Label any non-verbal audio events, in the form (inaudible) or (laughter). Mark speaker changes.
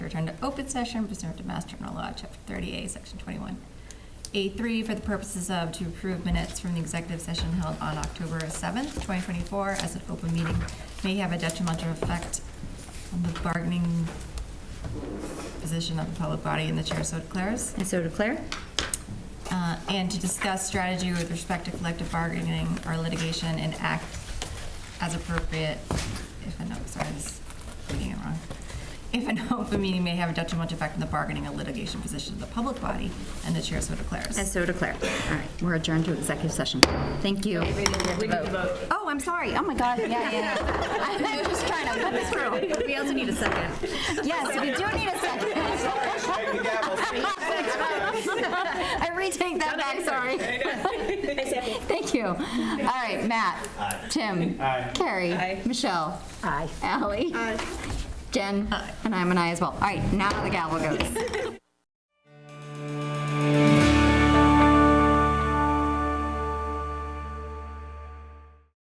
Speaker 1: return to open session pursuant to Mass General Law, Chapter 30A, Section 21. A3, for the purposes of to approve minutes from the executive session held on October 7th, 2024, as an open meeting may have a detrimental effect on the bargaining position of the public body, and the chair so declares.
Speaker 2: And so declare.
Speaker 1: Uh, and to discuss strategy with respect to collective bargaining or litigation and act as appropriate, if an, oh, sorry, I was reading it wrong. If an open meeting may have a detrimental effect on the bargaining or litigation position of the public body, and the chair so declares.
Speaker 2: And so declare. All right, we're adjourned to executive session. Thank you. Oh, I'm sorry. Oh, my God. Yeah, yeah, (laughs) yeah. I'm just trying to put this through. We also need a second. Yes, we do need a second. (laughs) I retake that back, sorry. (laughs) Thank you. All right, Matt. Tim. Carrie. Michelle. Aye. Ally. Jen. And I'm an aye as well. All right, now the gavel goes.